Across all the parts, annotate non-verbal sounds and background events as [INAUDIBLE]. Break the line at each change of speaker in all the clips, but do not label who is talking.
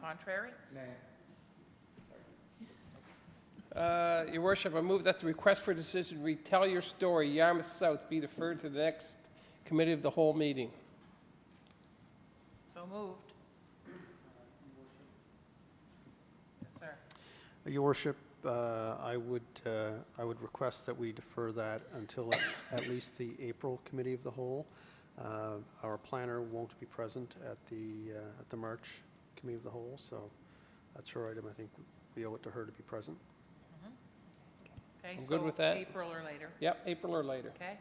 contrary?
Nay.
Uh, Your worship, I move that the request for decision, retell your story, Yarmouth South, be deferred to the next committee of the whole meeting.
So moved. Yes, sir.
Your worship, uh, I would, uh, I would request that we defer that until at- at least the April Committee of the Whole. Uh, Our planner won't be present at the, uh, at the March Committee of the Whole, so that's her item. I think we owe it to her to be present.
Okay,
I'm good
so
with that.
April or later,
Yep, April or later.
okay?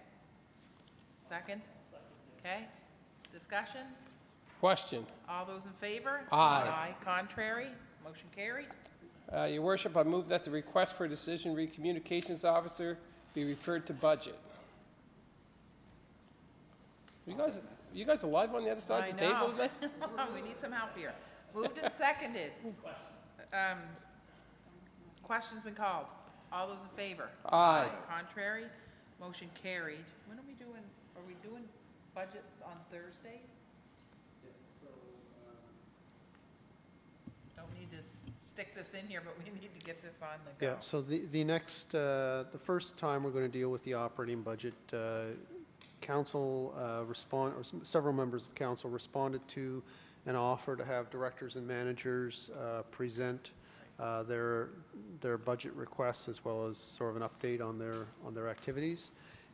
Second? Okay? Discussion?
Question.
All those in favor?
Aye.
Aye, contrary? Motion carried.
Uh, Your worship, I move that the request for decision, re communications officer, be referred to budget. You guys, you guys alive on the other side of the
I
table
know.
today?
[LAUGHS] We need some help here. Moved and seconded. Um, Question's been called. All those in favor?
Aye.
Contrary? Motion carried. When are we doing, are we doing budgets on Thursdays? Don't need to s- stick this in here, but we need to get this on the go.
Yeah, so the, the next, uh, the first time we're going to deal with the operating budget, uh, council uh, respond, or s- several members of council responded to an offer to have directors and managers uh, present uh, their, their budget requests as well as sort of an update on their, on their activities.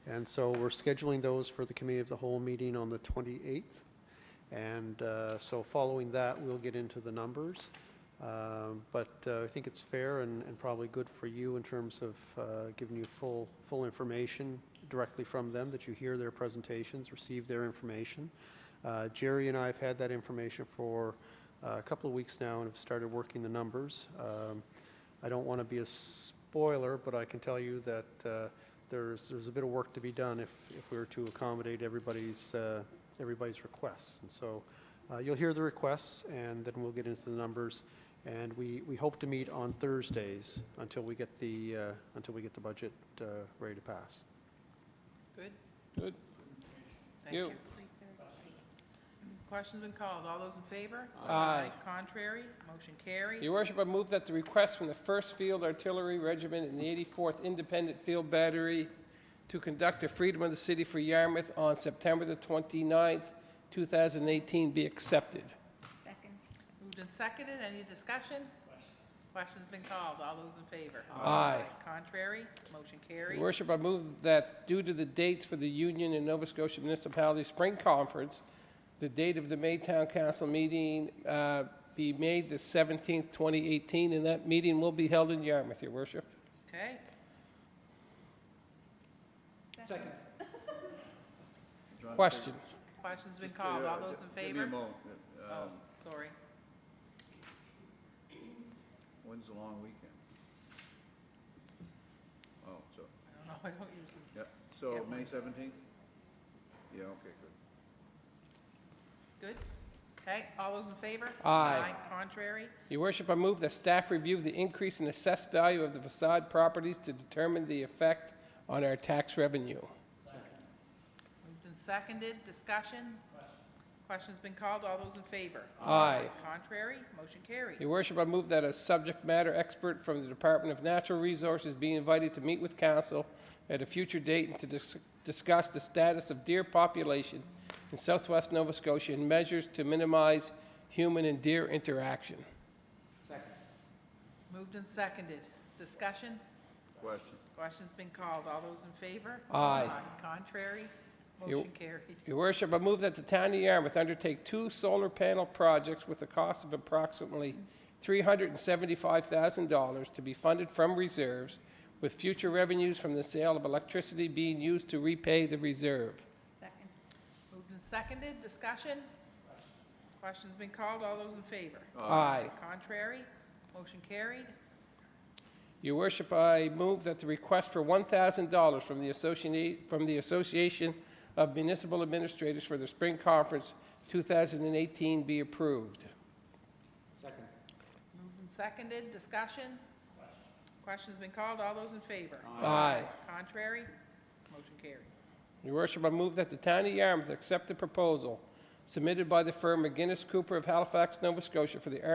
And so we're scheduling those for the committee of the whole meeting on the 28th. And uh, so following that, we'll get into the numbers. Um, But uh, I think it's fair and and probably good for you in terms of uh, giving you full, full information directly from them, that you hear their presentations, receive their information. Uh, Jerry and I have had that information for uh, a couple of weeks now and have started working the numbers. Um, I don't want to be a spoiler, but I can tell you that uh, there's, there's a bit of work to be done if, if we were to accommodate everybody's, uh, everybody's requests. And so uh, you'll hear the requests, and then we'll get into the numbers. And we, we hope to meet on Thursdays until we get the, uh, until we get the budget uh, ready to pass.
Good?
Good.
Thank
You.
you. Question's been called. All those in favor?
Aye.
Contrary? Motion carried.
Your worship, I move that the request from the 1st Field Artillery Regiment and the 84th Independent Field Battery to conduct a Freedom of the City for Yarmouth on September the 29th, 2018 be accepted.
Second.
Moved and seconded, any discussion? Question's been called, all those in favor?
Aye.
Contrary, motion carried.
Your worship, I move that due to the dates for the Union and Nova Scotia Municipality Spring Conference, the date of the Maytown Council meeting uh, be made the 17th, 2018, and that meeting will be held in Yarmouth, your worship.
Okay,
Second.
Question.
question's been called, all those in
uh, Give me a
favor?
moment. Uh,
Oh, sorry,
When's the long weekend? Oh, so,
I don't know, I don't usually,
yeah,
Yeah,
so
one.
May seventeenth? Yeah, okay, good.
good? Okay, all those in favor?
Aye.
Contrary,
Your worship, I move that staff review the increase in assessed value of the facade properties to determine the effect on our tax revenue.
moved and seconded, discussion? Question's been called, all those in favor?
Aye.
Contrary, motion carried.
Your worship, I move that a subject matter expert from the Department of Natural Resources be invited to meet with council at a future date and to dis- discuss the status of deer population in southwest Nova Scotia and measures to minimize human and deer interaction.
Moved and seconded, discussion?
Question.
Question's been called, all those in favor?
Aye.
Contrary,
You-
motion carried.
Your worship, I move that the town of Yarmouth undertake two solar panel projects with a cost of approximately $375,000 to be funded from reserves, with future revenues from the sale of electricity being used to repay the reserve.
Second.
Moved and seconded, discussion? Question's been called, all those in favor?
Aye.
Contrary, motion carried.
Your worship, I move that the request for $1,000 from the Associati- from the Association of Municipal Administrators for the Spring Conference 2018 be approved.
Moved and seconded, discussion? Question's been called, all those in favor?
Aye.
Contrary, motion carried.
Your worship, I move that the town of Yarmouth accept the proposal submitted by the firm McGinnis Cooper of Halifax, Nova Scotia for the